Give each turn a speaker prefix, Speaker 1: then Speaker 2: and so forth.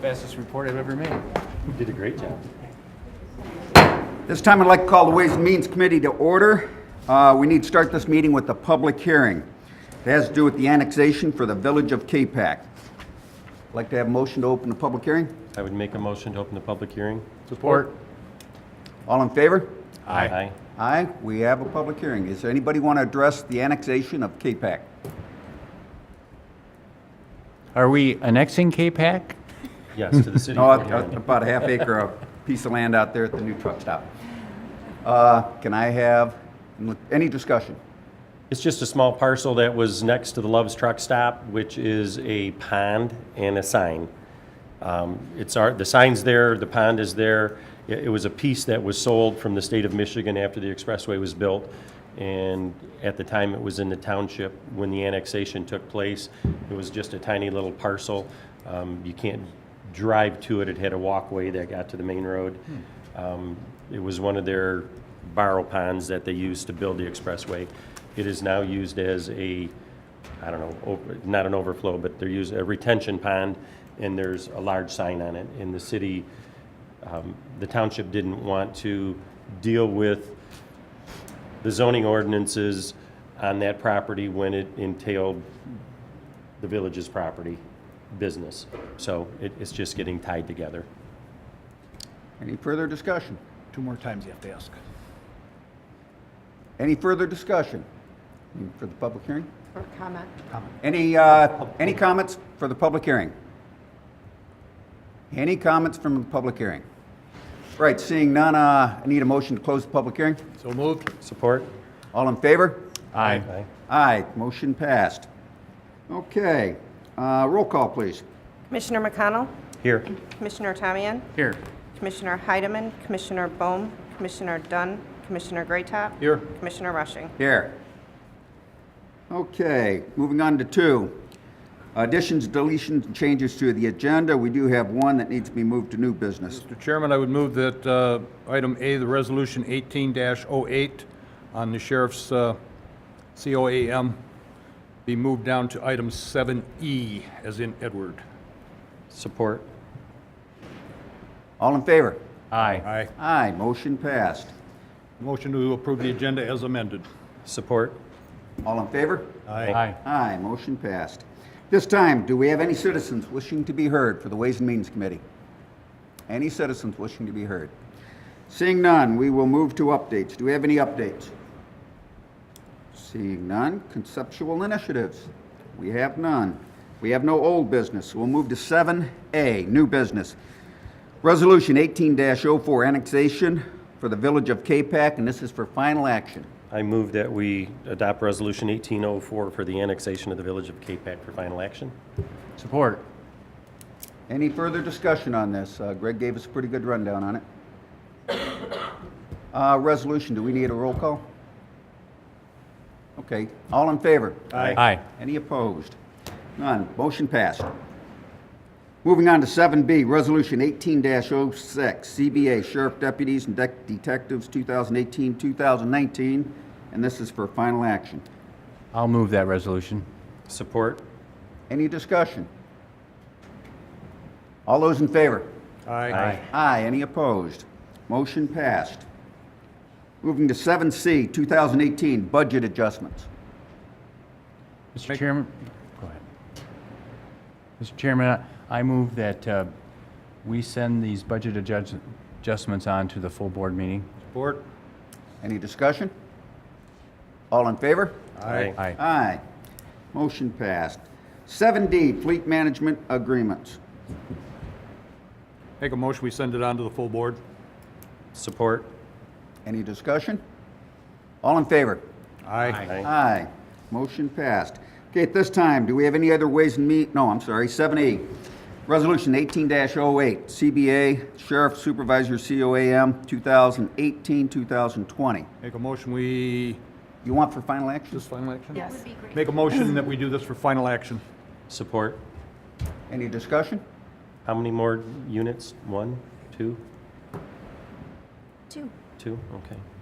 Speaker 1: fastest report I've ever made.
Speaker 2: You did a great job.
Speaker 3: This time I'd like to call the Ways and Means Committee to order. Uh, We need to start this meeting with a public hearing. It has to do with the annexation for the village of K-Pac. Like to have a motion to open the public hearing?
Speaker 2: I would make a motion to open the public hearing.
Speaker 1: Support.
Speaker 3: All in favor?
Speaker 2: Aye.
Speaker 3: Aye, we have a public hearing. Does anybody want to address the annexation of K-Pac?
Speaker 1: Are we annexing K-Pac?
Speaker 2: Yes, to the city.
Speaker 3: No,
Speaker 2: of
Speaker 3: a-
Speaker 2: Fort
Speaker 3: a-
Speaker 2: Wayne.
Speaker 3: about a half acre of piece of land out there at the new truck stop. Uh, Can I have, any discussion?
Speaker 2: It's just a small parcel that was next to the Love's Truck Stop, which is a pond and a sign. Um, It's our, the sign's there, the pond is there. It, it was a piece that was sold from the state of Michigan after the expressway was built. And at the time, it was in the township. When the annexation took place, it was just a tiny little parcel. Um, You can't drive to it. It had a walkway that got to the main road. Um, It was one of their barrel ponds that they used to build the expressway. It is now used as a I don't know, over- not an overflow, but they're using a retention pond, and there's a large sign on it. And the city, um, the township didn't want to deal with the zoning ordinances on that property when it entailed the village's property business. So it, it's just getting tied together.
Speaker 3: Any further discussion?
Speaker 1: Two more times you have to ask.
Speaker 3: Any further discussion Any for the public hearing?
Speaker 4: Or comment.
Speaker 3: Any, uh, any comments for the public hearing? Any comments from the public hearing? Right, seeing none, uh, I need a motion to close the public hearing.
Speaker 1: So moved.
Speaker 2: Support?
Speaker 3: All in favor?
Speaker 1: Aye.
Speaker 2: Aye.
Speaker 3: Aye, motion passed. Okay, uh, roll call, please.
Speaker 4: Commissioner McConnell,
Speaker 2: Here.
Speaker 4: Commissioner Tamian,
Speaker 1: Here.
Speaker 4: Commissioner Heidemann, Commissioner Bohm, Commissioner Dunn, Commissioner Graytop.
Speaker 1: Here.
Speaker 4: Commissioner Rushing.
Speaker 3: Here. Okay, moving on to two. Additions, deletions, and changes to the agenda. We do have one that needs to be moved to new business.
Speaker 5: Mr. Chairman, I would move that uh, item A, the resolution 18-08 on the sheriff's uh, COAM, be moved down to item 7E, as in Edward.
Speaker 2: Support?
Speaker 3: All in favor?
Speaker 1: Aye.
Speaker 5: Aye.
Speaker 3: Aye, motion passed.
Speaker 5: Motion to approve the agenda as amended.
Speaker 2: Support?
Speaker 3: All in favor?
Speaker 1: Aye.
Speaker 3: Aye, motion passed. This time, do we have any citizens wishing to be heard for the Ways and Means Committee? Any citizens wishing to be heard? Seeing none, we will move to updates. Do we have any updates? Seeing none, conceptual initiatives. We have none. We have no old business. We'll move to 7A, new business. Resolution 18-04, annexation for the Village of K-Pac, and this is for final action.
Speaker 2: I move that we adopt Resolution 1804 for the annexation of the Village of K-Pac for final action.
Speaker 1: Support.
Speaker 3: Any further discussion on this? Uh, Greg gave us a pretty good rundown on it. Uh, Resolution, do we need a roll call? Okay, all in favor?
Speaker 1: Aye.
Speaker 3: Any opposed? None. Motion passed. Moving on to 7B, Resolution 18-06, CBA Sheriff Deputies and Dec- Detectives 2018-2019, and this is for final action.
Speaker 1: I'll move that resolution.
Speaker 2: Support?
Speaker 3: Any discussion? All those in favor?
Speaker 5: Aye.
Speaker 3: Aye, any opposed? Motion passed. Moving to 7C, 2018 Budget Adjustments.
Speaker 1: Mr. Chairman, go ahead. Mr. Chairman, I move that uh, we send these budget adjust- adjustments on to the full board meeting.
Speaker 5: Support?
Speaker 3: Any discussion? All in favor?
Speaker 1: Aye.
Speaker 3: Aye, motion passed. 7D Fleet Management Agreements.
Speaker 5: Make a motion, we send it on to the full board.
Speaker 2: Support?
Speaker 3: Any discussion? All in favor?
Speaker 5: Aye.
Speaker 3: Aye, motion passed. Okay, at this time, do we have any other ways and mean, no, I'm sorry, 7E, Resolution 18-08, CBA Sheriff Supervisor COAM 2018-2020.
Speaker 5: Make a motion, we,
Speaker 3: You want for final action?
Speaker 5: this final action?
Speaker 4: Yes.
Speaker 5: Make a motion that we do this for final action.
Speaker 2: Support?
Speaker 3: Any discussion?
Speaker 2: How many more units? One, two,
Speaker 6: Two.
Speaker 2: two? Okay.